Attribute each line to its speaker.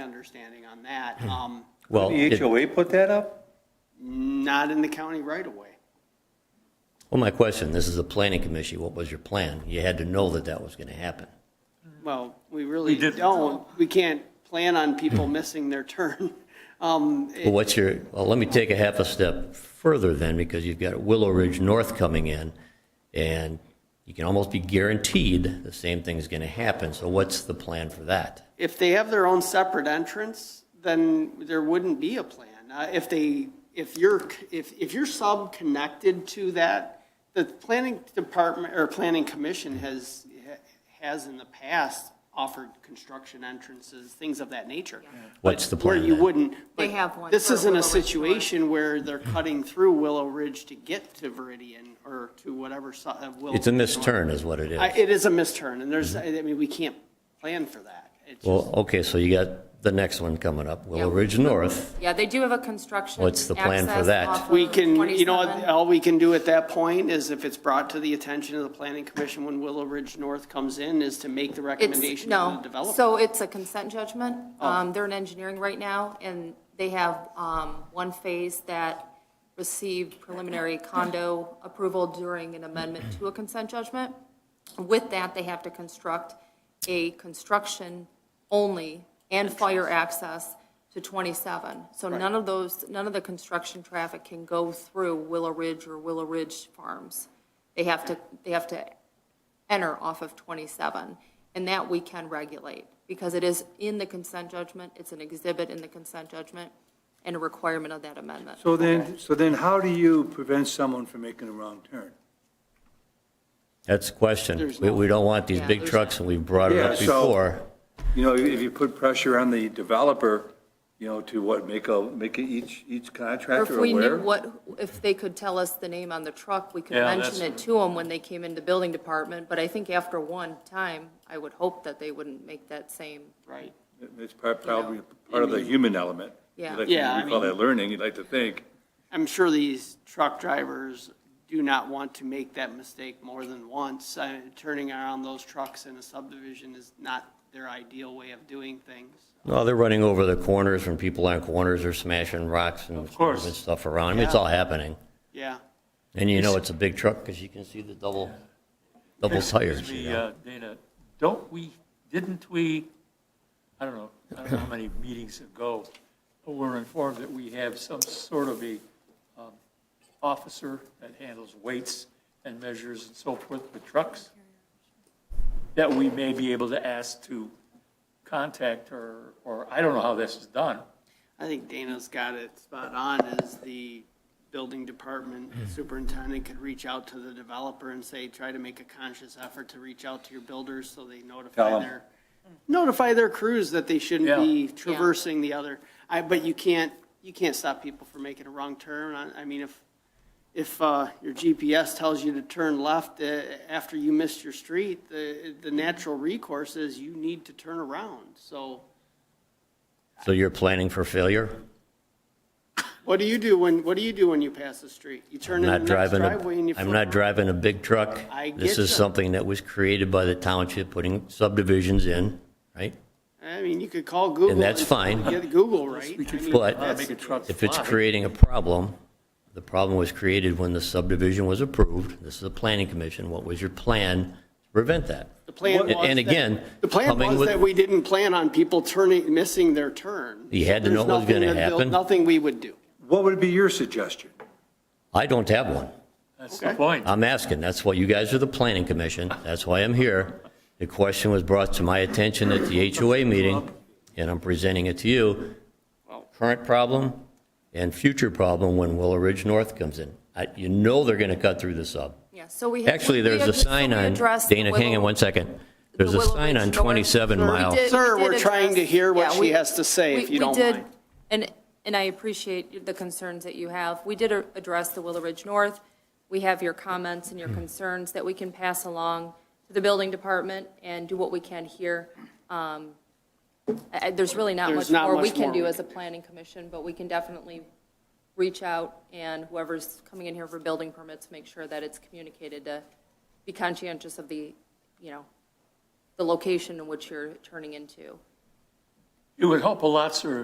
Speaker 1: understanding on that. Um,
Speaker 2: Well,
Speaker 3: The
Speaker 2: it-
Speaker 3: HOA put that up?
Speaker 1: Not in the county right away.
Speaker 2: well, my question, this is the planning commission, what was your plan? You had to know that that was going to happen.
Speaker 1: Well, we really
Speaker 3: didn't.
Speaker 1: don't, we can't plan on people missing their turn. Um, it-
Speaker 2: Well, what's your, well, let me take a half a step further then, because you've got Willow Ridge North coming in, and you can almost be guaranteed the same thing's going to happen, so what's the plan for that?
Speaker 1: If they have their own separate entrance, then there wouldn't be a plan. Uh, If they, if you're, if, if you're sub-connected to that, the planning department, or planning commission has, has in the past offered construction entrances, things of that nature.
Speaker 2: What's the
Speaker 1: But Where
Speaker 2: plan
Speaker 1: you
Speaker 2: then?
Speaker 1: wouldn't. but
Speaker 4: They have one
Speaker 1: This
Speaker 4: for
Speaker 1: isn't a
Speaker 4: Willow Ridge North.
Speaker 1: situation where they're cutting through Willow Ridge to get to Veridian or to whatever side of Willow.
Speaker 2: It's a
Speaker 1: Ridge
Speaker 2: missed
Speaker 1: North.
Speaker 2: turn is what it
Speaker 1: I-
Speaker 2: is.
Speaker 1: It is a misturn, and there's, I I mean, we can't plan for that. It's just-
Speaker 2: Well, okay, so you got the next one coming up, Willow
Speaker 4: Yeah.
Speaker 2: Ridge North.
Speaker 4: Yeah, they do have a construction.
Speaker 2: What's the plan for
Speaker 4: access
Speaker 2: that?
Speaker 4: off of
Speaker 1: We can, you know,
Speaker 4: 27.
Speaker 1: what, all we can do at that point is if it's brought to the attention of the planning commission when Willow Ridge North comes in, is to make the
Speaker 4: It's,
Speaker 1: recommendation to the
Speaker 4: no,
Speaker 1: developer. Oh.
Speaker 4: so it's a consent judgment. Um, they're in engineering right now, and they have, um, one phase that received preliminary condo approval during an amendment to a consent judgment. With that, they have to construct a construction-only and fire access to 27. So none of those, none of the construction traffic can go through Willow Ridge or Willow Ridge Farms. They have to, they have to enter off of 27, and that we can regulate, because it is in the consent judgment, it's an exhibit in the consent judgment, and a requirement of that amendment.
Speaker 5: So then, so then how do you prevent someone from making a wrong turn?
Speaker 2: That's the question.
Speaker 1: There's
Speaker 2: We,
Speaker 1: no-
Speaker 2: we don't want these
Speaker 4: Yeah,
Speaker 2: big
Speaker 4: there's
Speaker 2: trucks, and we've brought it
Speaker 5: Yeah,
Speaker 2: up
Speaker 5: so-
Speaker 2: before.
Speaker 5: You know, if you put pressure on the developer, you know, to what, make a, make a- each, each
Speaker 4: Or if
Speaker 5: contractor
Speaker 4: we knew
Speaker 5: aware?
Speaker 4: what, if they could tell us the name on the truck, we could
Speaker 3: Yeah,
Speaker 4: mention it
Speaker 3: that's-
Speaker 4: to them when they came into building department, but I think after one time, I would hope that they wouldn't make that same,
Speaker 1: Right.
Speaker 5: It's part- probably part of the human element.
Speaker 4: Yeah.
Speaker 5: You'd like to-
Speaker 1: Yeah, I
Speaker 5: We call
Speaker 1: mean-
Speaker 5: that learning, you'd like to think.
Speaker 1: I'm sure these truck drivers do not want to make that mistake more than once. Uh, Turning around those trucks in a subdivision is not their ideal way of doing things.
Speaker 2: No, they're running over the corners when people on corners are smashing rocks and
Speaker 3: course.
Speaker 2: moving stuff around. I mean, It's
Speaker 1: Yeah.
Speaker 2: all happening.
Speaker 1: Yeah.
Speaker 2: And you know it's a big truck because you can see the double, double tires,
Speaker 3: Excuse
Speaker 2: you
Speaker 3: me,
Speaker 2: know?
Speaker 3: uh, Dana, don't we, didn't we, I don't know, I don't know how many meetings ago, but we're informed that we have some sort of a um, officer that handles weights and measures and so forth with trucks, that we may be able to ask to contact or, or I don't know how this is done.
Speaker 1: I think Dana's got it spot on, is the building department superintendent could reach out to the developer and say, try to make a conscious effort to reach out to your builders so they notify
Speaker 5: Tell 'em.
Speaker 1: their, notify their crews that they shouldn't be traversing the other. I, but you can't, you can't stop people from making a wrong turn. I, I mean, if, if, uh, your GPS tells you to turn left, uh, after you missed your street, the, the natural recourse is you need to turn around. So
Speaker 2: So you're planning for failure?
Speaker 1: What do you do when, what do you do when you pass the street? You turn
Speaker 2: I'm
Speaker 1: in the
Speaker 2: not
Speaker 1: next
Speaker 2: driving, a-
Speaker 1: driveway and you.
Speaker 2: I'm
Speaker 1: flip
Speaker 2: not
Speaker 1: around.
Speaker 2: driving a big truck.
Speaker 1: I get
Speaker 2: This is
Speaker 1: ya.
Speaker 2: something that was created by the township, putting subdivisions in, right?
Speaker 1: I mean, you could call Google.
Speaker 2: that's fine.
Speaker 1: Get Google, right?
Speaker 3: We could
Speaker 1: I mean,
Speaker 2: But-
Speaker 3: Uh,
Speaker 1: that's-
Speaker 3: Make a truck
Speaker 2: If it's
Speaker 3: fly.
Speaker 2: creating a problem, the problem was created when the subdivision was approved. This is a planning commission. What was your plan to prevent that?
Speaker 1: The plan was. that-
Speaker 2: And again.
Speaker 1: The plan
Speaker 2: coming
Speaker 1: was
Speaker 2: with-
Speaker 1: that we didn't plan on people turning, missing their turn.
Speaker 2: You had to
Speaker 1: There's
Speaker 2: know what was gonna
Speaker 1: nothing that they'll-
Speaker 2: happen.
Speaker 1: Nothing we would do.
Speaker 5: What would be your suggestion?
Speaker 2: I don't have one.
Speaker 3: That's the point.
Speaker 2: I'm asking, that's why you guys are the planning commission, that's why I'm here. The question was brought to my attention at the HOA meeting, and I'm presenting it to you. Current problem and future problem when Willow Ridge North comes in. I- You know they're going to cut through the sub.
Speaker 4: yeah, so we. have-
Speaker 2: Actually,
Speaker 4: we
Speaker 2: there's
Speaker 4: had-
Speaker 2: a
Speaker 4: so
Speaker 2: sign
Speaker 4: we
Speaker 2: on,
Speaker 4: addressed the
Speaker 2: Dana, hang on
Speaker 4: Willow-
Speaker 2: one second. There's
Speaker 4: the
Speaker 2: a
Speaker 4: Willow
Speaker 2: sign
Speaker 4: Ridge
Speaker 2: on
Speaker 4: North.
Speaker 2: 27
Speaker 4: Sir, we
Speaker 2: Mile.
Speaker 4: did-
Speaker 1: Sir,
Speaker 4: we did
Speaker 1: we're trying to hear what
Speaker 4: address-
Speaker 1: she
Speaker 4: yeah,
Speaker 1: has to say,
Speaker 4: we-
Speaker 1: if you
Speaker 4: we
Speaker 1: don't
Speaker 4: did-
Speaker 1: mind.
Speaker 4: And, and I appreciate the concerns that you have. We did a- address the Willow Ridge North. We have your comments and your concerns that we can pass along to the building department and do what we can here. Um, I- I- There's really not
Speaker 1: There's
Speaker 4: much
Speaker 1: not
Speaker 4: more we
Speaker 1: much more
Speaker 4: can do
Speaker 1: we
Speaker 4: as a
Speaker 1: can do.
Speaker 4: planning commission, but we can definitely reach out and whoever's coming in here for building permits, make sure that it's communicated to be conscientious of the, you know, the location in which you're turning into.
Speaker 3: It would help a lot, sir,